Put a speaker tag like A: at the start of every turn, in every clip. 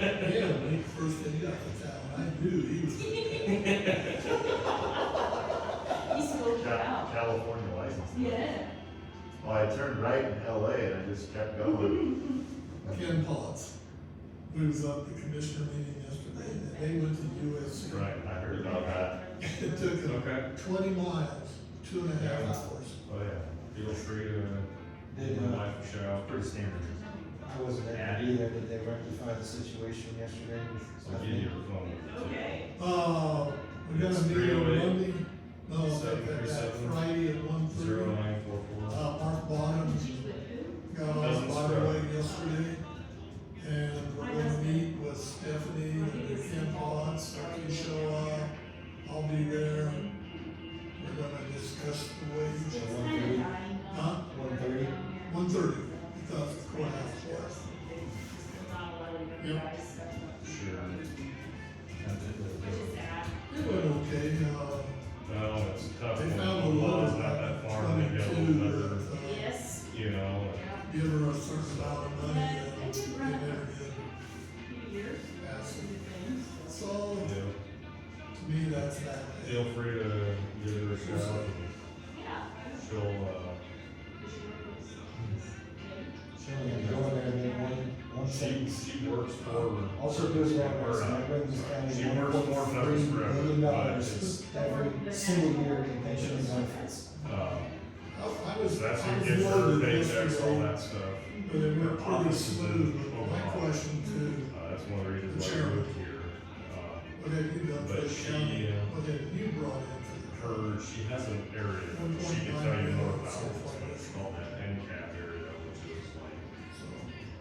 A: Yeah, when he first said, you gotta fix that one, I knew he was.
B: He smoked it
C: Ca-
B: out.
C: California license. plate.
B: Yeah.
C: Well, I turned right in LA and I just kept going.
A: Ken Potts, who was at the commissioner meeting yesterday, and they went to USC.
C: Right, I heard about that.
A: It took them
D: Okay,
A: twenty miles, two and a half hours.
C: Oh, yeah.
D: feel free to
E: Did,
D: give my
E: uh,
D: life a shout.
C: Pretty standard.
E: I wasn't at it either, but they rectified the situation yesterday.
C: So give you a phone.
B: Okay.
A: Uh, we got a
D: It's
A: meeting on
D: 308,
A: Monday, no,
D: seven
A: that, that
D: three seven,
A: Friday at one
D: Zero
A: thirty.
D: nine four four.
A: Uh, Mark Bottom got on
D: Doesn't
A: by the
D: scrub.
A: way yesterday. And we're gonna meet with Stephanie and Ken Potts, if you show up, I'll be there. We're gonna discuss the
B: It's
A: wage,
B: kind of dying. off
A: huh?
E: One thirty,
B: down here.
A: One thirty, I thought the courthouse was.
B: There's not a lot of
A: Yep.
B: guys, so
C: Sure.
B: I just add.
A: It went okay, uh,
D: No, Oh, it's tough.
A: they
D: when
A: found a
D: the
A: law
D: law's not that far, and they got a
A: twenty-two
D: little better,
A: that, uh,
B: Yes.
D: you know.
B: Yeah.
A: give her a certain amount of money
B: Yes,
A: and
B: I
A: they
B: did run
A: never
B: across
A: did.
B: Few years.
A: Yes.
B: Some good things.
A: So,
D: and
A: to me, that's that.
D: uh, Feel free to give her a shout.
B: Yeah.
D: and She'll, uh,
E: she only had to go in there and then one, one
D: she,
E: sentence.
D: she works for.
E: Also goes down
D: Her,
E: there,
D: uh,
E: and brings
D: She
E: down
D: works
E: one
D: more
E: point
D: than others
E: three
D: forever,
E: million
D: but it's,
E: dollars every single year in pension and benefits.
A: I
D: uh,
A: I was.
D: that's
A: I
D: who
A: was
D: gets her
A: worried
D: paychecks, all
A: yesterday,
D: that stuff.
A: But it
D: Her
A: went pretty
D: office is in
A: smooth, but my
D: Omaha.
A: question
D: Uh, that's one of the reasons why I
A: Sure.
D: moved here. Uh,
A: to, what have you done for the
D: But she,
A: county?
D: uh,
A: What have you brought in for the county?
D: her, she has an area, that she can tell you more about, it's called that NCAP area, which is like
A: So,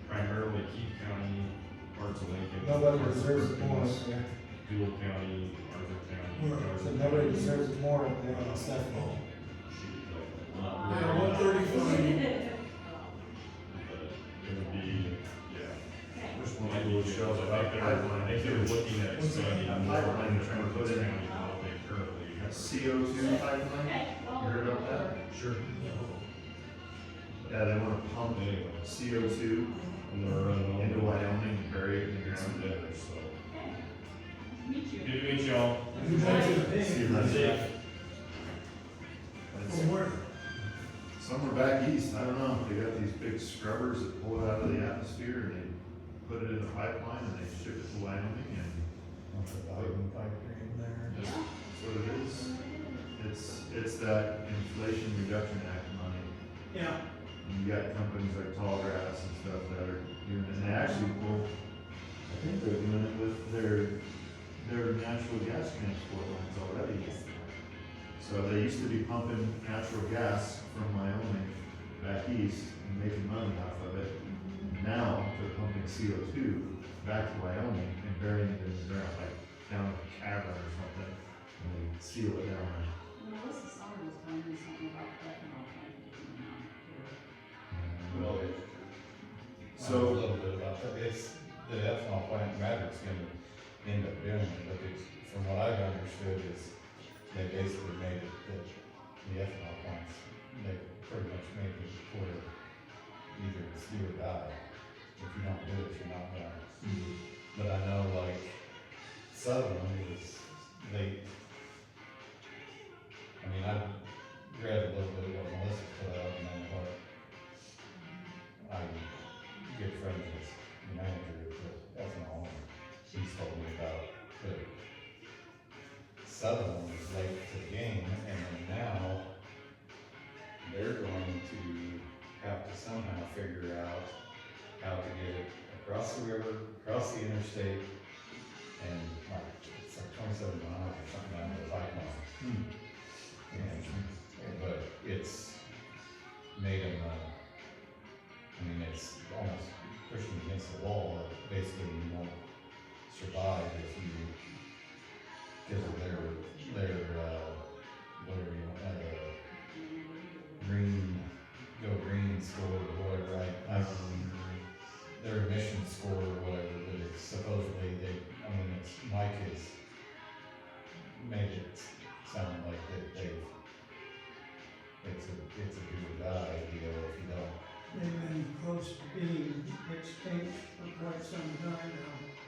D: primarily Keith County, parts of Lincoln.
E: Nobody
D: parts of
E: deserves it
D: Perkins,
E: more, up there.
D: Dual County, Arthur
A: Right.
D: County.
E: so nobody deserves it more up there than Stephanie.
A: Yeah, one thirty-five,
D: But it would be, yeah.
B: Okay.
D: Which one might be shows up out there, I think they're looking at expanding more in Perkins County than what they currently have.
C: CO two pipeline?
B: Okay. well,
C: You heard about that?
D: Sure.
C: Yeah, they wanna pump CO two
D: And they're running.
C: into Wyoming and bury it in the ground.
D: So,
B: Okay. Meet you.
D: good to meet y'all.
A: you mentioned it.
C: See, that's it. That's-
A: From where?
C: Somewhere back east, I don't know, they got these big scrubbers that pull it out of the atmosphere and they put it in a pipeline and they ship it to Wyoming and
B: Yeah.
C: that's what it is. It's, it's that Inflation Reduction Act money.
E: Yeah.
C: And you got companies like Tallgrass and stuff that are doing it, and they actually, well, I think they're doing it with their, their natural gas transport lines already.
B: Yes.
C: So they used to be pumping natural gas from Wyoming back east and making money off of it. Now they're pumping CO two back to Wyoming and burying it in the ground, like down a cavern or something, and they seal it down.
B: Well, Melissa Summer was telling me something about ethanol plant getting out here.
C: Well, So.
F: A little bit about that, it's, the ethanol plant Maverick's gonna end up doing it, but it's, from what I've understood is, they basically made it that the ethanol plants, they pretty much made it for either it's do or die. If you don't do it, you're not gonna.
C: Mm-hmm.
F: But I know like Southern is, they, I mean, I read a little bit of what Melissa put out and then what I um, good friend was the manager of the ethanol, and he's told me about the Sutherland was late to the game, and then now they're going to have to somehow figure out how to get it across the river, across the interstate, and like, it's like twenty-seven miles or something down to the bike mile.
C: Hmm.
F: And, but it's made them, uh, I mean, it's almost pushing against the wall, that basically you won't survive if you give it their, their, uh, whatever you want, uh, green, go green score or whatever, I, I don't remember their emission score or whatever, but it's supposedly they, I mean, it's, Mike has made it sound like that they've, it's a, it's a do or die deal if you don't
G: they've been close to being extinct for quite some time now.